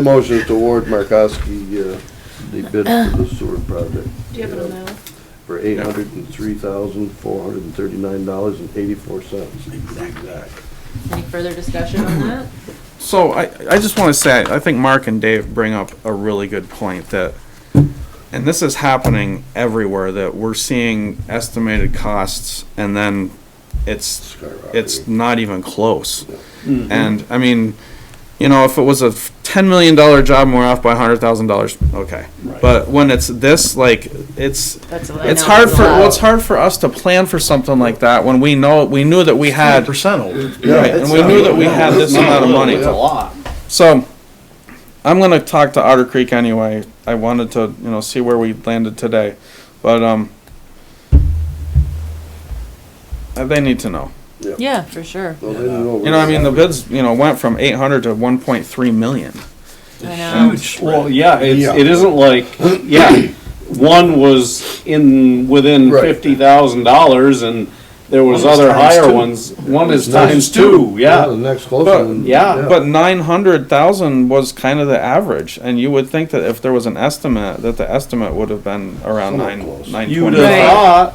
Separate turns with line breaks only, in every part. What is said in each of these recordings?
The motion is to award Markowski, uh, the bid for the sewer project.
Do you have an amount?
For eight hundred and three thousand, four hundred and thirty-nine dollars and eighty-four cents. Exact.
Any further discussion on that?
So I, I just want to say, I think Mark and Dave bring up a really good point that, and this is happening everywhere, that we're seeing estimated costs and then it's, it's not even close.
Mm-hmm.
And, I mean, you know, if it was a ten million dollar job and we're off by a hundred thousand dollars, okay. But when it's this, like, it's,
That's what I
it's
know
hard
is
for,
a lot.
well, it's hard for us to plan for something like that when we know, we knew that we had.
percent old.
Right, and we knew that we had this amount of money.
It's a lot.
So, I'm gonna talk to Otter Creek anyway. I wanted to, you know, see where we landed today, but, um, uh, they need to know.
Yeah, for sure.
Well, they didn't
You know, I mean, the bids, you know, went from eight hundred to one point three million.
I know.
Well, yeah,
Yeah.
it's, it isn't like, yeah, one was in, within
Right.
fifty thousand dollars and there was
One is
other
times
higher
two.
ones. One is times two,
The
yeah.
next close
But-
one.
yeah,
But nine hundred thousand was kind of the average, and you would think that if there was an estimate, that the estimate would have been around
Somewhat
nine,
close.
nine
You'd
Right.
twenty.
have thought,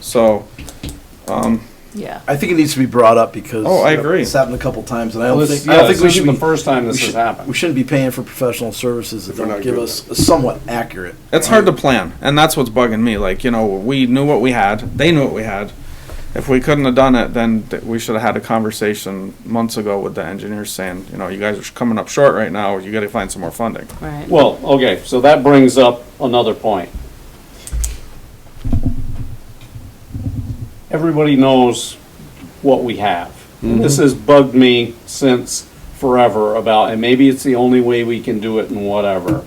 So, um,
Yeah.
I think it needs to be brought up because.
Oh, I agree.
It's happened a couple times and I don't
this,
think, I don't
yeah,
think
this
we
isn't
should
the
be.
first time
we
this has
should- We
happened.
shouldn't be paying for professional services that
they're
don't
not
give
good
us a somewhat accurate.
It's hard to plan, and that's what's bugging me. Like, you know, we knew what we had, they knew what we had. If we couldn't have done it, then th- we should have had a conversation months ago with the engineers saying, you know, you guys are coming up short right now, you gotta find some more funding.
Right.
Well, okay, so that brings up another point. Everybody knows what we have. This has bugged me since forever about, and maybe it's the only way we can do it and whatever.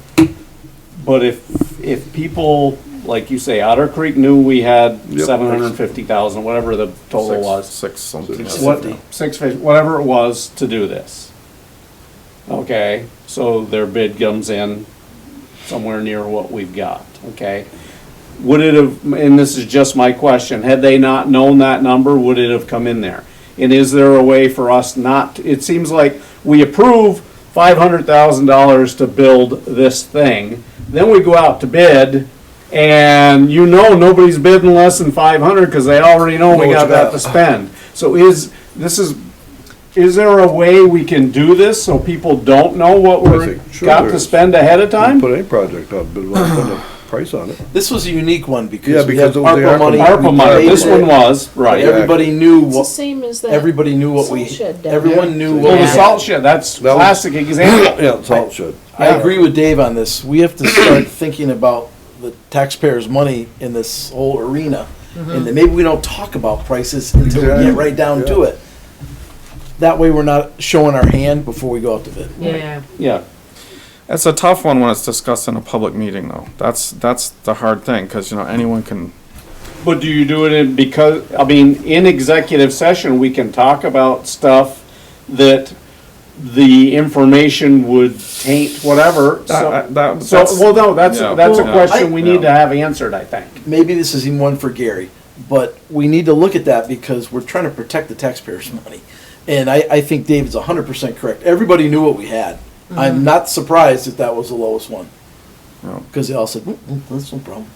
But if, if people, like you say, Otter Creek knew we had
Yep.
seven hundred and fifty thousand, whatever the total
Six-
was
Six something.
Six.
what,
50.
six fif- whatever it was to do this. Okay, so their bid comes in somewhere near what we've got, okay? Would it have, and this is just my question, had they not known that number, would it have come in there? And is there a way for us not, it seems like we approve five hundred thousand dollars to build this thing, then we go out to bid, and you know nobody's bidding less than five hundred, cause they already know we
Know what
got
you
that
got.
to spend. So is, this is, is there a way we can do this so people don't know what we're,
think- sure
got
there
to
is.
spend ahead of
Didn't
time?
Put any project up, but we'll put a price on it.
This was a unique one because.
Yeah,
we
because
had
it was the ARPA
money. we
ARPA money,
paid
this
it,
one was,
but
right.
Everybody knew
It's the
what,
same as that.
everybody knew what we,
Salt shed down
everyone
there.
knew what
Well,
we
the
Yeah.
salt shed, that's
That was-
classic example.
Yeah, it's all it should.
I agree with Dave on this. We have to start thinking about the taxpayers' money in this whole arena.
Mm-hmm.
And then maybe we don't talk about prices until we get right down to
Yeah.
it. That way we're not showing our hand before we go out to bid.
Yeah.
Yeah,
It's a tough one when it's discussed in a public meeting, though. That's, that's the hard thing, cause you know, anyone can,
but do you do it in, because, I mean, in executive session, we can talk about stuff that the information would taint whatever.
that,
So,
that,
so,
that's,
well, no, that's,
Yeah.
that's a
Well,
question we
I-
need to have answered, I think.
Maybe this is even one for Gary, but we need to look at that because we're trying to protect the taxpayers' money. And I, I think David's hundred percent correct. Everybody knew what we had. I'm not surprised that that was the lowest one.
No.
Cause they all said, "Mm, mm, that's no problem.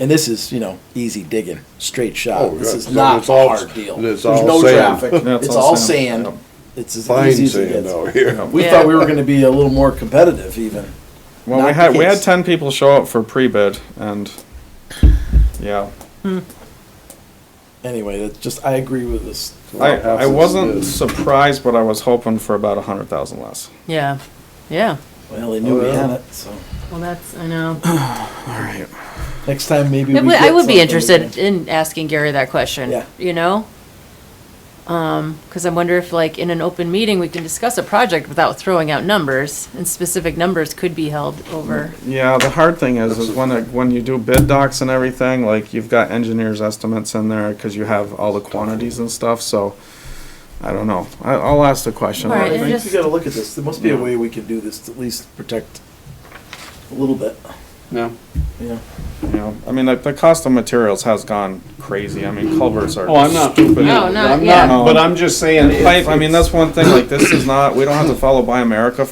And this is, you know, easy digging, straight
Oh,
shot. This
yeah.
is
So
not a
it's all-
hard deal.
and
There's
it's all
no
sand.
traffic.
Yeah,
It's all sand. It's as easy
Fine
as it
sand
gets.
out here.
Yeah.
We
Yeah.
thought we were gonna be a little more competitive even.
Well, we
Not
had,
the
we had
case.
ten people show up for pre-bid and, yeah.
Anyway, that's just, I agree with this.
I,
Well,
I
absence
wasn't
is-
surprised, but I was hoping for about a hundred thousand less.
Yeah. Yeah.
Well, they knew
Oh,
we
yeah.
had it, so
Well, that's, I know.
All right.
next time maybe
I
we
would, I
get
would be
something
interested
different.
in asking Gary that question.
Yeah.
You know? Um, cause I wonder if like in an open meeting, we can discuss a project without throwing out numbers and specific numbers could be held over.
Yeah, the hard thing is, is when, it- when you do bid docs and everything, like, you've got engineers' estimates in there, cause you have all the quantities and stuff, so, I don't know. I, I'll ask the question.
All right,
I
and
think we
just-
gotta look at this. There must be a
Yeah.
way we can do this to at least protect a little bit.
No?
Yeah.
You know, I mean, like the cost of materials has gone crazy. I mean, culverts are.
Oh, I'm not.
stupid.
No,
I'm
not- yeah.
But I'm just saying.
And pipe, I
it's-
mean, that's one thing, like, this is not, we don't have to follow Buy America